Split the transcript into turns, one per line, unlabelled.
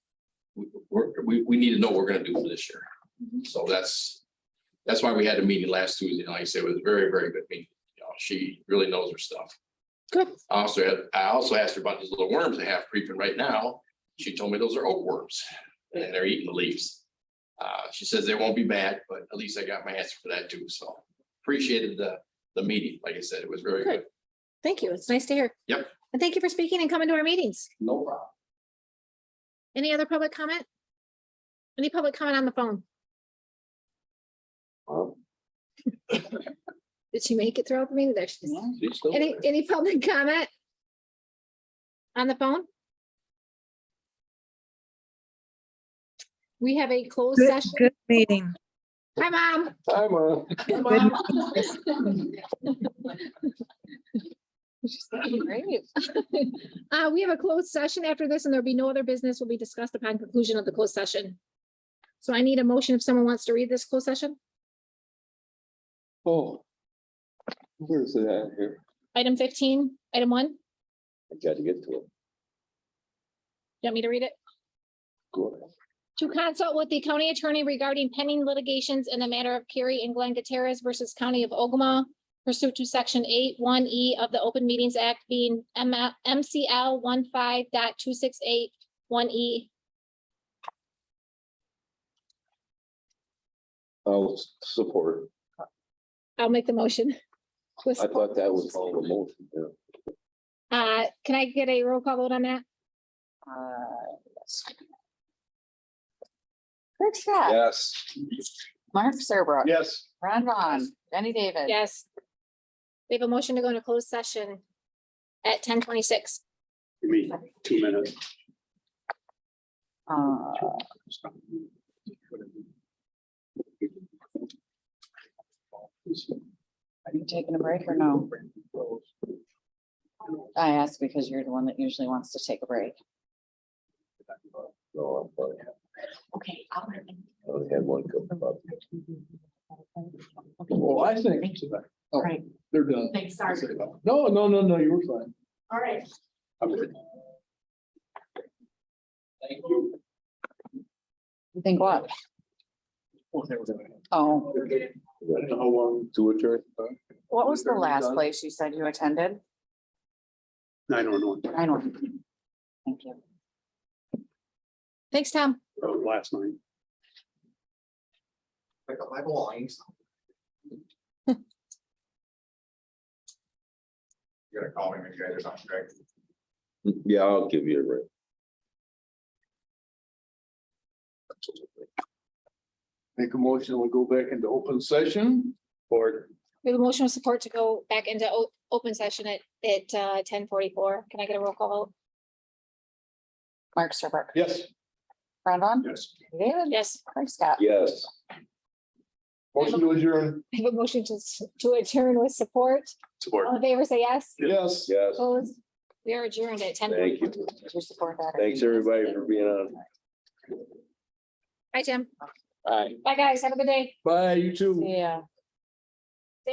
we, we're- we, we need to know what we're gonna do for this year.
Mm-hmm.
So that's, that's why we had a meeting last Tuesday, and like I said, it was a very, very good meeting. You know, she really knows her stuff.
Good.
I Also, had- I also asked her about these little worms they have creeping right now. She told me those are oak worms, and they're eating the leaves. Uh, she says they won't be bad, but at least I got my answer for that too, so appreciated the, the meeting. Like I said, it was very good.
Thank you. It's nice to hear.
Yep.
And thank you for speaking and coming to our meetings.
No problem.
Any other public comment? Any public comment on the phone?
Well,
Did she make it through open meeting? There she is.
she's still
Any,
there.
any public comment? On the phone? We have a closed
Good,
session.
good meeting.
Hi, mom.
Hi, Mom.
Good-
Great. Uh, we have a closed session after this and there'll be no other business will be discussed upon conclusion of the closed session. So I need a motion if someone wants to read this closed session.
Oh. Where's it at here?
Item fifteen, item one, you
I gotta get to it.
want me to read it?
Go ahead.
To consult with the county attorney regarding pending litigations in the matter of Kerry and Glenn Gutierrez versus County of Ogama pursuant to section eight one E of the Open Meetings Act being M- MCL one five dot two six eight one E.
I'll s- support.
I'll make the motion. With
I
support.
thought that was all the motion. yeah.
Uh, can I get a roll call vote on that?
Craig Scott.
Yes.
Mark Serbrook.
Yes.
Ron Vaughn. Jenny David.
Yes. We have a motion to go into closed session at ten twenty-six.
Give me two minutes.
Uh, Are you taking a break or no? I ask because you're the one that usually wants to take a break.
No, I thought
Okay.
I only had one coming up.
Well, I think. Oh,
Right.
They're done.
Thanks, sorry.
No, no, no, no, you were fine.
All right.
I'm good. Thank you.
You think what?
Oh, that was it.
Oh,
I don't know how long.
To adjourn.
what was the
Are we
last
done?
place you said you attended?
I don't know.
I don't. Thank you.
Thanks, Tom.
That was Last night.
pick up my belongings.
You gotta call me when you guys are not correct.
Yeah, I'll give you a ring.
Make a motion, we go back into open session or
We have a motion of support to go back into o- open session at, at, uh, ten forty-four. Can I get a roll call vote?
Mark Serbrook.
yes,
Ron Vaughn.
yes.
Jenny David.
Yes,
Craig Scott.
Yes.
Motion to adjourn.
I have a motion to, s- to adjourn with support.
Support.
All in favor, say yes.
Yes.
Yes.
Opposed? We are adjourned at ten
Thank
forty-four.
you.
Did you support that? or-
Thanks, everybody, for being on.
Hi, Jim.
Bye.
Bye, guys. Have a good day.
Bye, you too.
Yeah.